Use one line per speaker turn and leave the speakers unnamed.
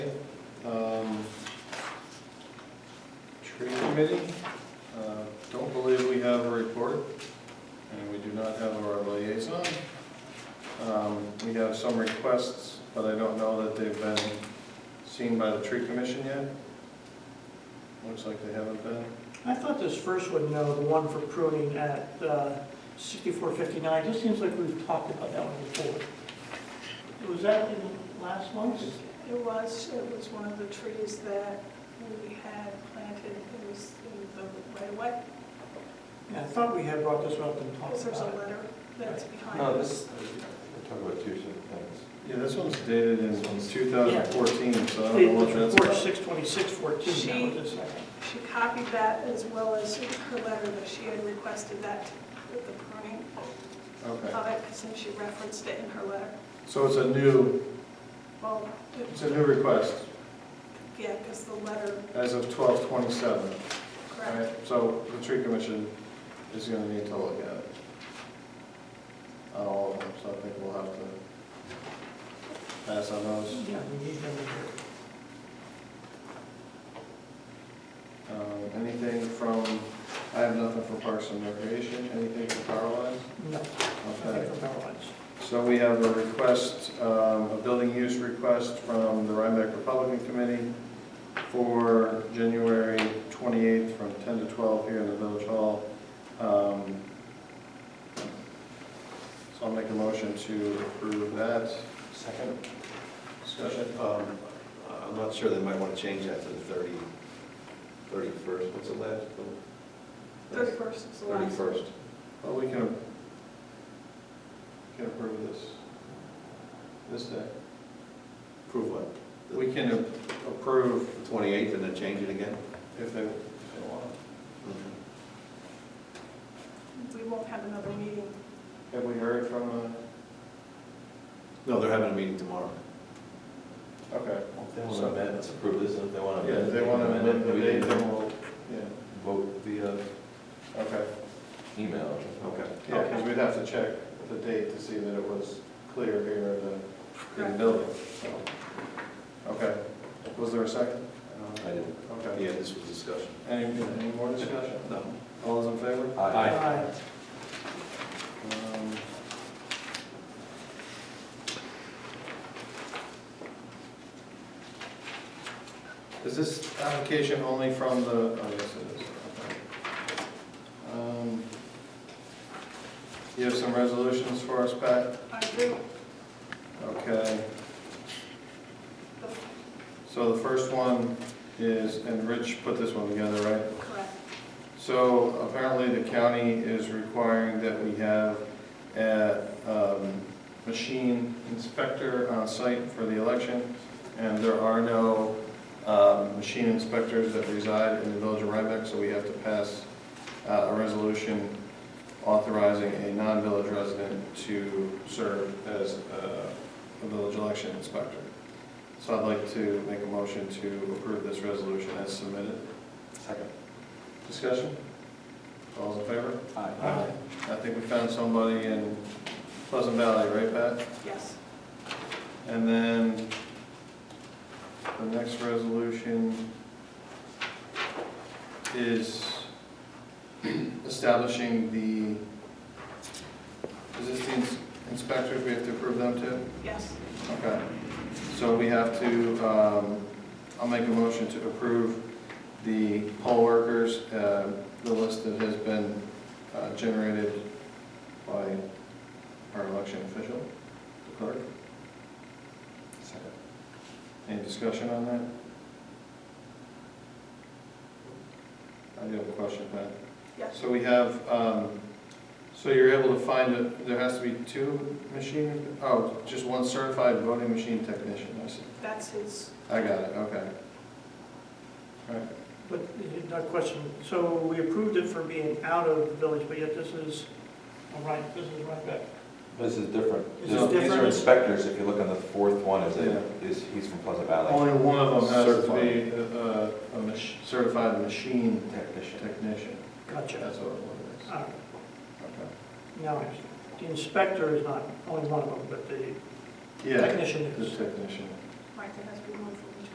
Um, committee, uh, don't believe we have a report, and we do not have our liaison. Um, We have some requests, but I don't know that they've been seen by the tree commission yet. Looks like they haven't been.
I thought this first one, no, the one for pruning at uh, sixty-four fifty-nine, just seems like we've talked about that one before. Was that in last month's?
It was, it was one of the trees that we had planted, it was in the right away,
Yeah, I thought we had brought this one up and talked
because there's a
about it.
letter that's behind it.
No, this, we're talking about two different things.
Yeah, this one's dated in 2014, so I don't know what that's
Report
about.
six twenty-six fourteen, that was the second.
She copied that as well as her letter that she had requested that, with the pruning
Okay,
of it, since she referenced it in her letter.
so it's a new,
Well, it-
it's a new request
yeah, because the letter,
as of 12/27. Right,
correct,
so the tree commission is gonna need to look at it. On all of them, so I think we'll have to pass on those.
Yeah, we need them in here.
Um, Anything from, I have nothing from Parks and Recreation, anything from Power Lines?
No,
Okay.
nothing from our lines.
So we have a request, um, a building use request from the Rhinebeck Republican Committee for January 28th from 10 to 12 here in the Village Hall. Um, So I'll make a motion to approve that.
Second?
Discussion?
Um, I'm not sure, they might want to change that to the thirty, thirty-first, what's the last? one?
31st is the last.
Thirty-first.
Well, we can, can approve this, this day.
Prove what?
We can approve
The twenty-eighth and then change it again?
if they, if they want.
Mm-hmm.
We won't have another meeting.
Have we heard from, uh,
No, they're having a meeting tomorrow.
okay.
If they want to amend, let's approve this, and if they want to.
Yeah, if they want to amend the date, then we'll, yeah,
Vote via
okay.
email. Okay.
Yeah, because we'd have to check the date to see that it was clear here in the, in the building. so. Okay, was there a second?
I didn't,
Okay,
yeah, this was discussion.
any, any more discussion?
No.
All those in favor?
Aye.
Um, Is this application only from the, oh, yes, it is. okay. Um, You have some resolutions for us, Pat?
I do,
Okay,
the-
so the first one is, and Rich put this one together, right?
correct,
So apparently the county is requiring that we have a um, machine inspector on site for the election, and there are no um, machine inspectors that reside in the village of Rhinebeck, so we have to pass uh, a resolution authorizing a non-village resident to serve as uh, a village election inspector. So I'd like to make a motion to approve this resolution as submitted.
Second.
Discussion? All's in favor?
Aye.
I think we found somebody in Pleasant Valley, right, Pat?
yes.
And then the next resolution is establishing the, is this the ins- inspectors, we have to approve them too?
Yes,
Okay, so we have to, um, I'll make a motion to approve the poll workers, uh, the list that has been uh, generated by our election official, the clerk.
Second.
Any discussion on that? I do have a question, Pat.
yes,
So we have, um, so you're able to find, that there has to be two machine, oh, just one certified voting machine technician, I see.
that's his,
I got it, okay. Alright,
But, not question, so we approved it for being out of the village, but yet this is, all right, this is right back.
This is different.
Is
This-
it
These
different?
are inspectors, if you look on the fourth one, is, it- is, he's from Pleasant Valley.
only one of them has to be a, a mach- certified machine
Technician.
technician,
Gotcha.
that's what it
All right,
is.
Now, I understand. the inspector is not only one of them, but the
Okay. Yeah,
technician
the
is.
technician,
Martha has removed from